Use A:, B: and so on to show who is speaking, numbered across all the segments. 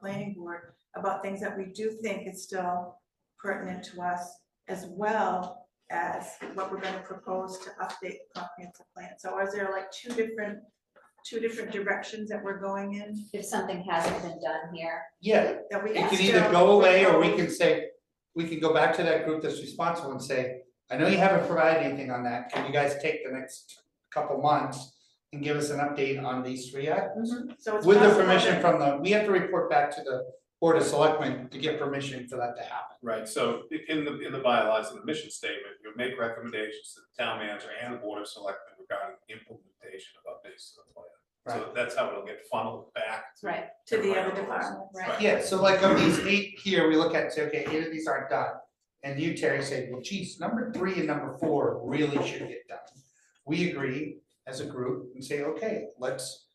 A: planning board about things that we do think is still pertinent to us as well as what we're gonna propose to update the comprehensive plan. So is there like two different, two different directions that we're going in
B: If something hasn't been done here,
C: Yeah,
A: that we
C: it
A: can
C: can
A: still?
C: either go away or we
A: propose?
C: can say, we can go back to that group that's responsible and say, I know you haven't provided anything on that, can you guys take the next couple months and give us an update on these three items?
A: So it's
C: With the
A: possible
C: permission
A: that-
C: from the, we have to report back to the Board of Selectmen to get permission for that to happen.
D: Right, so i- in the, in the bylaws and the mission statement, you make recommendations to the town manager and the board of selectmen regarding implementation of updates to the plan. So that's how it'll get funneled back to.
B: right,
A: To the other
D: Right.
A: department, right?
D: Right.
C: Yeah, so like of these eight here, we look at, and say, okay, eight of these aren't done. And you, Terry, say, well, geez, number three and number four really should get done. We agree as a group and say, okay, let's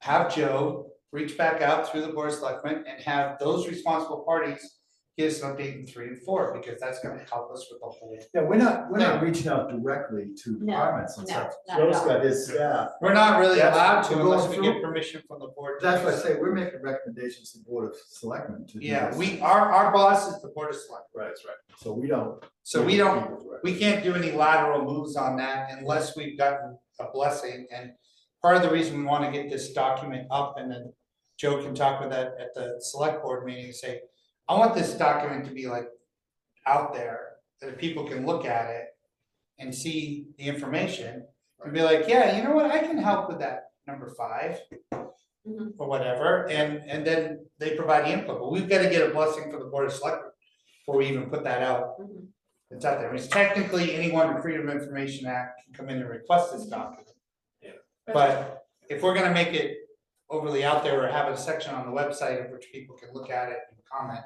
C: have Joe reach back out through the board of selectmen and have those responsible parties give us an update in three and four, because that's gonna help us with the whole.
E: Yeah, we're not, we're not reaching out directly to
B: No,
E: departments and
B: no,
E: stuff.
B: not at
E: Joe's
B: all.
E: got his staff.
C: We're not really
E: That's-
C: allowed to
E: we're
C: unless we
E: going
C: get
E: through-
C: permission from the board. to
E: That's
C: do
E: what I
C: so.
E: say, we're making recommendations to the Board of Selectmen to do
C: Yeah,
E: this.
C: we, our, our boss is the board of selectmen,
D: Right, that's right.
E: So we don't.
C: so we don't We can't do any lateral moves on that unless we've gotten a blessing, and part of the reason we wanna get this document up and then. Joe can talk with that at the select board meeting and say, I want this document to be like out there, that people can look at it. And see the information, and be like, yeah, you know what, I can help with that number five.
B: Mhm.
C: Or whatever, and and then they provide the input, but we've gotta get a blessing from the board of selectmen before we even put that out
B: Mhm.
C: it's out there, it's technically anyone in Freedom of Information Act can come in and request this document.
D: Yeah.
C: But if we're gonna make it overly out there or have a section on the website in which people can look at it and comment,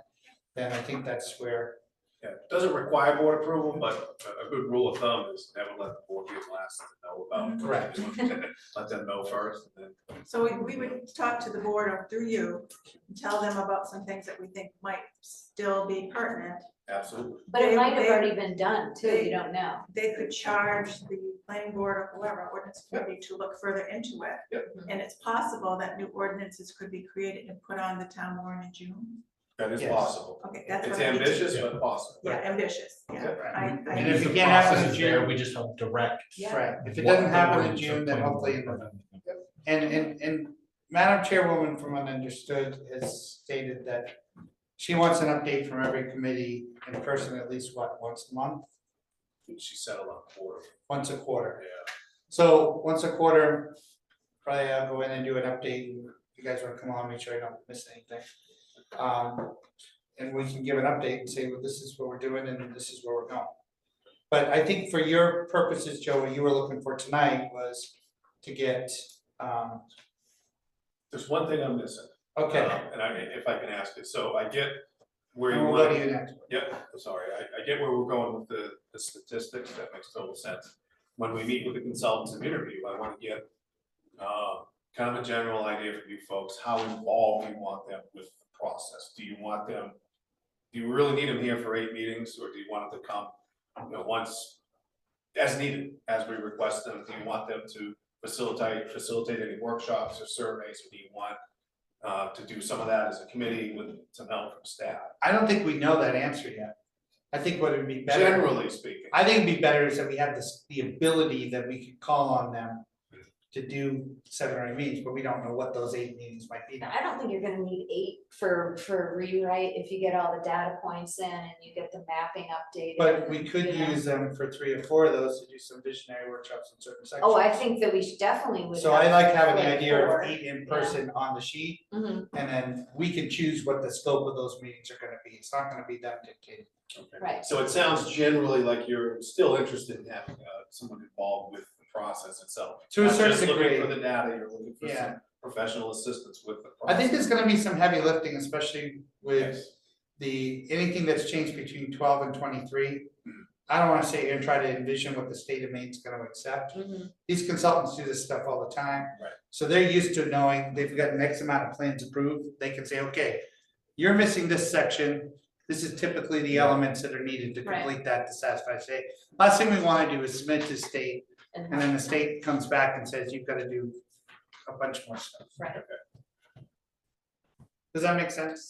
C: then I think that's where,
D: Yeah, it doesn't require board approval, but a, a good rule of thumb is never let the board be the last to know about.
C: Correct.
D: Let them know first and then.
A: So we- we would talk to the board or through you, and tell them about some things that we think might still be pertinent.
D: Absolutely.
B: but it
A: They-
B: might have
A: they-
B: already been done too,
A: they-
B: you don't know.
A: They could charge the planning board or whoever, ordinance committee to look further into it.
D: Yep.
A: And it's possible that new ordinances could be created and put on the town warrant in June.
D: That is
C: Yes.
D: possible.
A: Okay, that's what
D: It's
A: I need to-
D: ambitious, but possible.
A: Yeah, ambitious, yeah. I, I.
C: And if
F: If
C: it
F: the
C: can't happen
F: process
C: in
F: is there,
C: June-
F: we just help direct.
B: Yeah.
C: right, if it
F: what
C: doesn't
F: the
C: happen in
F: ordinance
C: June, then
F: of planning
C: hopefully, in
F: board-
C: November. and and and Madam Chairwoman, from what I understood, has stated that she wants an update from every committee in person at least, what, once a month,
D: She settled on quarter,
C: once a quarter?
D: yeah.
C: So once a quarter, probably I'll go in and do an update, and if you guys wanna come on, make sure I don't miss anything. Um, and we can give an update and say, well, this is what we're doing and this is where we're going. But I think for your purposes, Joe, what you were looking for tonight was to get, um,
D: There's one thing I'm missing.
C: okay,
D: Um, And I, if I can ask it, so I get where you
C: and we'll
D: want.
C: go to you next.
D: Yep, I'm sorry, I, I get where we're going with the, the statistics, that makes total sense. When we meet with the consultants and interview, I wanna get, uh, kind of a general idea from you folks, how involved you want them with the process. Do you want them, do you really need them here for eight meetings, or do you want them to come, you know, once, as needed, as we request them? Do you want them to facilitate, facilitate any workshops or surveys, or do you want, uh, to do some of that as a committee with some help from staff?
C: I don't think we know that answer yet. I think what would be better.
D: Generally speaking.
C: I think it'd be better is that we have this, the ability that we could call on them to do seven or eight meetings, but we don't know what those eight meetings might be.
B: I don't think you're gonna need eight for, for rewrite if you get all the data points in and you get the mapping updated.
C: But we
B: and,
C: could
B: you know.
C: use them for three or four of those to do some visionary workshops in certain sections.
B: Oh, I think that we should definitely would.
C: So I like having the
B: like
C: idea
B: four.
C: of eight in person on the sheet,
B: Mhm,
C: and then we can choose what the scope of those meetings are gonna be, it's not gonna be them dictating.
B: right,
D: So it sounds generally like you're still interested in having uh, someone involved with the process itself.
C: To a
D: Not
C: certain
D: just
C: degree.
D: Looking for the data, you're looking for
C: Yeah.
D: some professional assistance with the
C: I
D: process.
C: think there's gonna be some heavy lifting, especially with
D: Yes.
C: the, anything that's changed between twelve and twenty-three. I don't wanna sit here and try to envision what the state of Maine's gonna accept,
B: mhm,
C: these consultants do this stuff all the time.
D: Right.
C: So they're used to knowing they've got an X amount of plans approved, they can say, okay, you're missing this section. This is typically the elements that are needed to
B: Right.
C: complete that to satisfy state. Last thing we wanna do is submit to state, and then the state comes back and says, you've gotta do a bunch more stuff.
B: Right.
C: Does that make sense?